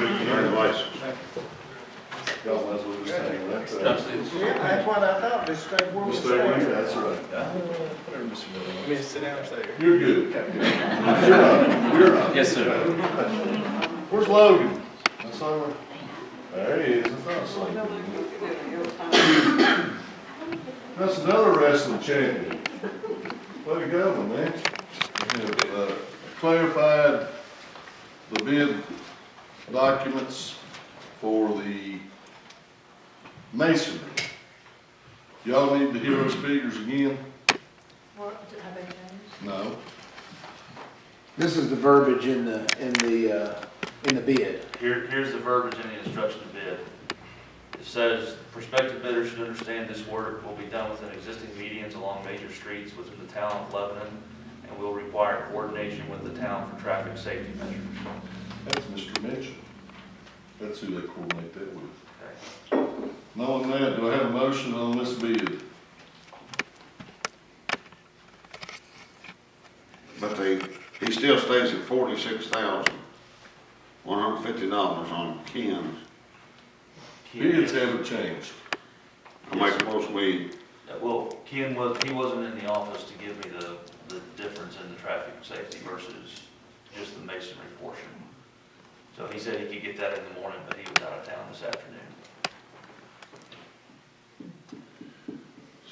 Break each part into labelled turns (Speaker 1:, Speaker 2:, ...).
Speaker 1: your license.
Speaker 2: Y'all might as well just hang with that.
Speaker 3: That's it.
Speaker 4: Yeah, that's what I thought, just stay where we
Speaker 2: Just stay with you,
Speaker 4: stay.
Speaker 2: that's right.
Speaker 5: Let me sit down and say.
Speaker 2: You're good. You're not, you're not.
Speaker 3: Yes, sir.
Speaker 2: Where's Logan? That's not where. There he is, I thought I saw him. That's another wrestling champion. Way to go, my man. We have, uh, clarified the bid documents for the masonry. Y'all need to hear those figures again?
Speaker 6: What, have they changed?
Speaker 2: No.
Speaker 7: This is the verbiage in the, in the, uh, in the bid.
Speaker 8: Here, here's the verbiage in the instruction to bid. It says, prospective bidders should understand this work will be done within existing medians along major streets within the town of Lebanon and will require coordination with the town for traffic safety measures.
Speaker 2: That's Mr. Mitchell. That's who they coordinate that with.
Speaker 8: Okay.
Speaker 2: Knowing that, do I have a motion on this bid?
Speaker 1: But they, he still stays at forty-six thousand, one hundred and fifty dollars on Ken's.
Speaker 2: Bids haven't changed.
Speaker 1: I make a motion we,
Speaker 8: Uh, Well, Ken was, he wasn't in the office to give me the, the difference in the traffic safety versus just the masonry portion. So he said he could get that in the morning, but he was out of town this afternoon.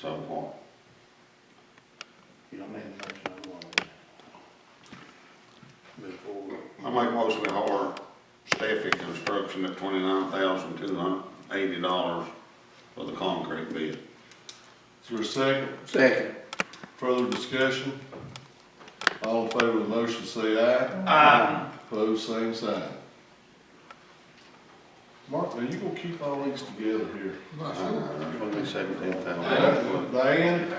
Speaker 1: so what?
Speaker 7: You don't need a motion on the one. Move forward.
Speaker 1: I make a motion we hire Steffi Construction at twenty-nine thousand, two hundred and eighty dollars for the concrete bid.
Speaker 2: Is there a second?
Speaker 7: Second.
Speaker 2: Further discussion? All in favor of the motion, say aye.
Speaker 7: Aye.
Speaker 2: Opposed, same sign. Mark, are you gonna keep all these together here?
Speaker 8: Uh,
Speaker 1: Seventeen thousand.
Speaker 2: Diane,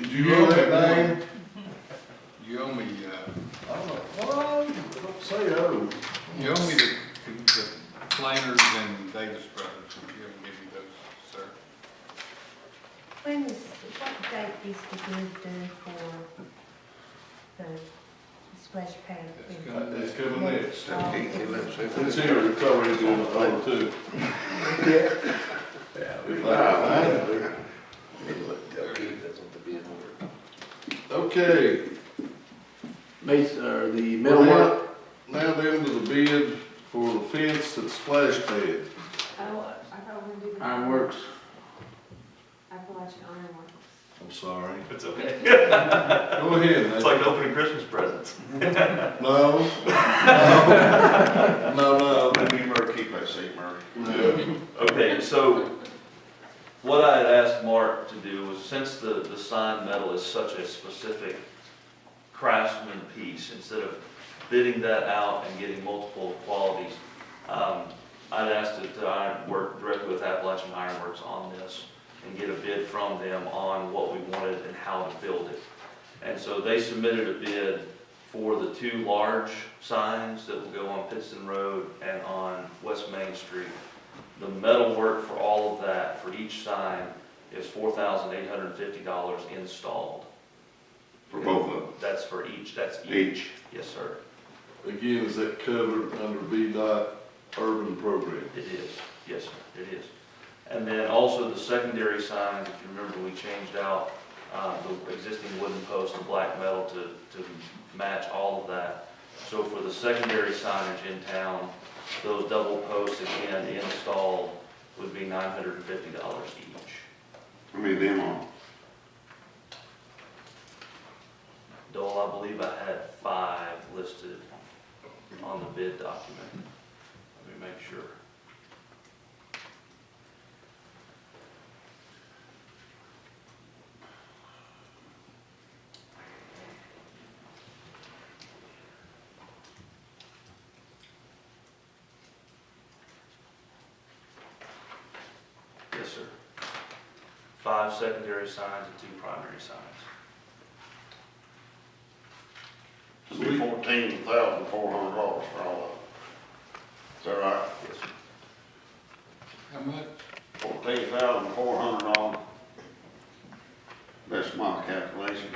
Speaker 2: did you hear that, Diane?
Speaker 5: You owe me, uh,
Speaker 2: I don't know. Well, don't say oh.
Speaker 5: you owe me the, the Planers and Davis Brothers, if you haven't given me those, sir.
Speaker 6: When is, what date is the bid due for the splash pad? Oh,
Speaker 5: That's
Speaker 6: bid?
Speaker 5: good.
Speaker 2: It's coming next.
Speaker 1: Seventeen, eleven,
Speaker 2: It's
Speaker 1: six.
Speaker 2: here, it's already doing the whole two. Okay,
Speaker 7: Base, or uh, the
Speaker 2: Well,
Speaker 7: middle one?
Speaker 2: now, now then to the bid for the fence at Splash Pad.
Speaker 9: Oh, I thought we were doing.
Speaker 7: Ironworks.
Speaker 9: Appalachian Iron Works.
Speaker 2: I'm sorry.
Speaker 8: It's okay.
Speaker 2: Go ahead,
Speaker 8: It's
Speaker 2: Nathan.
Speaker 8: like opening Christmas presents.
Speaker 2: No, no, no, no.
Speaker 1: You better keep that seat, Murray.
Speaker 2: no.
Speaker 8: Okay, so what I had asked Mark to do was, since the, the sign metal is such a specific craftsman piece, instead of bidding that out and getting multiple qualities, um, I'd asked to, to iron- work directly with Appalachian Ironworks on this and get a bid from them on what we wanted and how to build it. And so they submitted a bid for the two large signs that will go on Pittston Road and on West Main Street. The metal work for all of that, for each sign, is four thousand eight hundred and fifty dollars installed.
Speaker 1: For both of
Speaker 8: That's for each, that's
Speaker 1: them,
Speaker 8: each,
Speaker 1: each.
Speaker 8: yes, sir,
Speaker 2: Again, is that covered under VDOT urban program?
Speaker 8: it is, yes, sir, it is. And then also the secondary signs, if you remember, we changed out, uh, the existing wooden post to black metal to, to match all of that. So for the secondary signage in town, those double posts again installed would be nine hundred and fifty dollars each.
Speaker 1: I mean, them on,
Speaker 8: Dole, I believe I had five listed on the bid document. Let me make sure. Yes, sir. Five secondary signs and two primary signs.
Speaker 1: it'll be fourteen thousand, four hundred dollars for all of them. Is that right?
Speaker 8: Yes, sir.
Speaker 5: How much?
Speaker 1: Fourteen thousand, four hundred dollars. That's my calculation.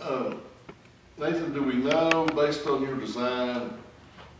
Speaker 2: Um, Nathan, do we know, based on your design,